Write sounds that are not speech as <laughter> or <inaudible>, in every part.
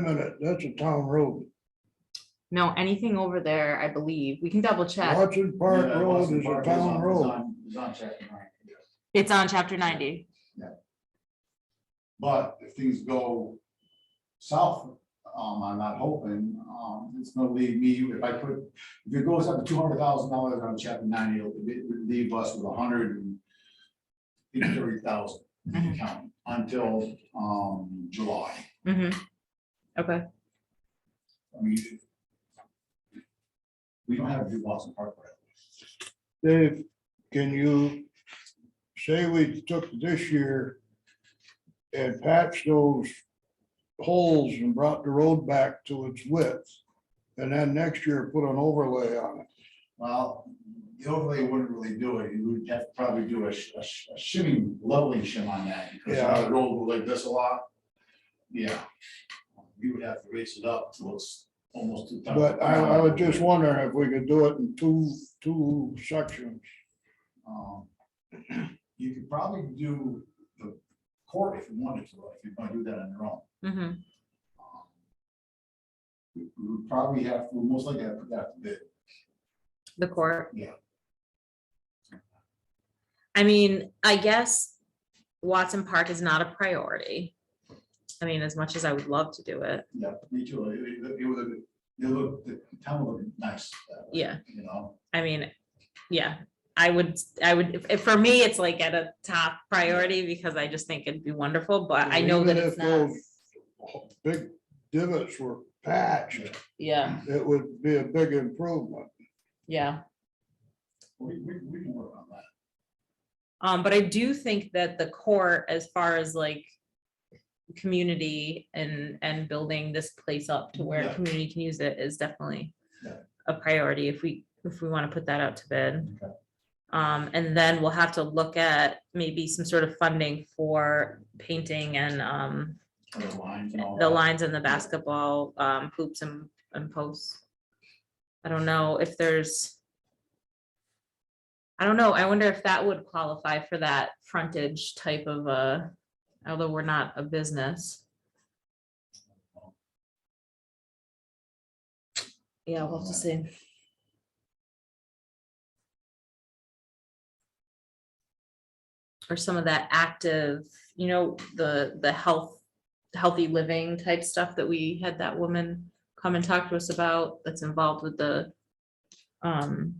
minute, that's a town road. No, anything over there, I believe. We can double check. Watson Park Yeah, Road Watson is a Park town on- road. on- is on chapter nine. It's on chapter ninety. But if things go south, um, I'm not hoping, um, it's gonna leave me, if I put, if it goes up to two hundred thousand dollars on chapter ninety, it'll be- it would leave us with a hundred and thirty thousand in the county until, um, July. Mhm. Okay, I mean, we don't have New Boston Park right Dave, can you say we took this year and patched those holes and brought the road back to its width? And then next year put an overlay on it. Well, the overlay wouldn't really do it. You would have to probably do a, sh- a sh- a shimming, leveling shim on that. because Yeah. I roll like this a lot. Yeah. You would have to raise it up to it's almost. to- But I, I was just wondering if we could do it in two, two sections. Um, You could probably do the court if you wanted to, if you're gonna do that on your own. mhm. Um, We we would probably have, we most likely have to put that to bid. the court. Yeah. I mean, I guess Watson Park is not a priority. I mean, as much as I would love to do it, Yeah, me too. It, it- it was, a- it looked, the town looked nice. that way, Yeah. You know? I mean, yeah, I would, I would, if- if, for me, it's like at a top priority because I just think it'd be wonderful, but I know that Even it's if not. those Big divots were patched, Yeah, it would be a big improvement. yeah. We, we, we can work on that. Um, but I do think that the core, as far as like community and, and building this place up to where Yeah. community can use it is definitely Yeah. a priority if we, if we want to put that out to bid. Okay. Um, and then we'll have to look at maybe some sort of funding for painting and, um, For the lines and all the that. lines and the basketball um hoops and and posts. I don't know if there's. I don't know. I wonder if that would qualify for that frontage type of uh although we're not a business. Yeah, we'll have to see. Or some of that active, you know, the the health healthy living type stuff that we had that woman come and talk to us about that's involved with the um,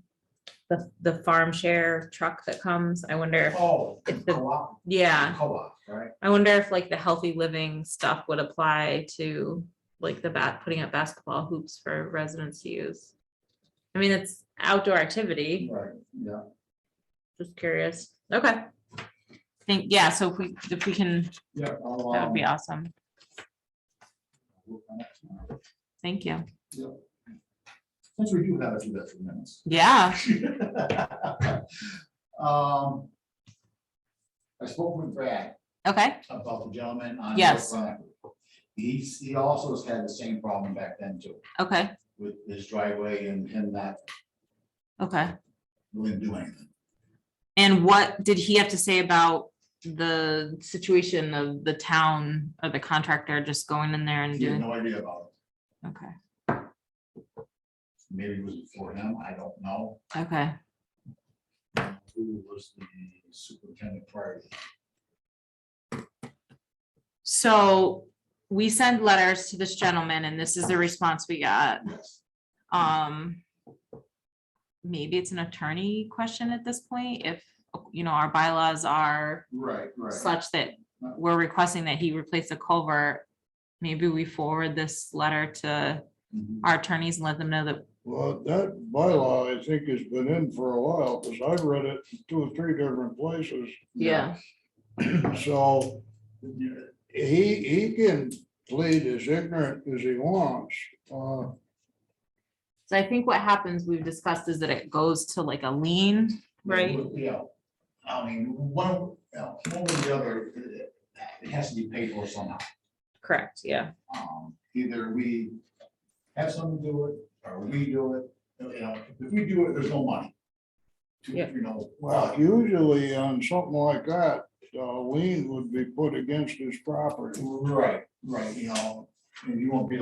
the, the farm share truck that comes. I wonder, if Oh, if the- co-op, yeah, co-op, right? I wonder if like the healthy living stuff would apply to like the bat, putting up basketball hoops for residents to use. I mean, it's outdoor activity, Right, yeah. just curious. Okay. Think, yeah, so if we, if we can, Yeah. I'll, that would be um, awesome. work on that tomorrow. Thank you. Since we do have a few extra minutes. <laughs> Yeah. Um, I spoke with Brad Okay. about the gentleman on. Yes. North Front. He's, he also has had the same problem back then too, Okay. with his driveway and him not Okay. really doing anything. And what did he have to say about the situation of the town or the contractor just going in there and He had doing? no idea about it. Okay, Maybe it was before him, I don't know. okay, who was the superintendent prior. to that. so we send letters to this gentleman and this is the response we got. Yes. Um. Maybe it's an attorney question at this point, if, you know, our bylaws are Right, right. such that we're requesting that he replace the culvert. Maybe we forward this letter to Mhm. our attorneys and let them know that, Well, that bylaw, I think, has been in for a while, because I've read it in two or three different places. yeah, <clears throat> So Yeah. he, he can plead as ignorant as he wants. Uh, So I think what happens, we've discussed, is that it goes to like a lien, right? Yeah. I mean, one, yeah, one or the other, uh, it has to be paid for somehow. Correct, yeah. Um, Either we have someone do it, or we do it, you know, if we do it, there's no money. To, Yeah. you know, Well, well, usually on something like that, uh, lien would be put against his property. right, right, you know, and you won't be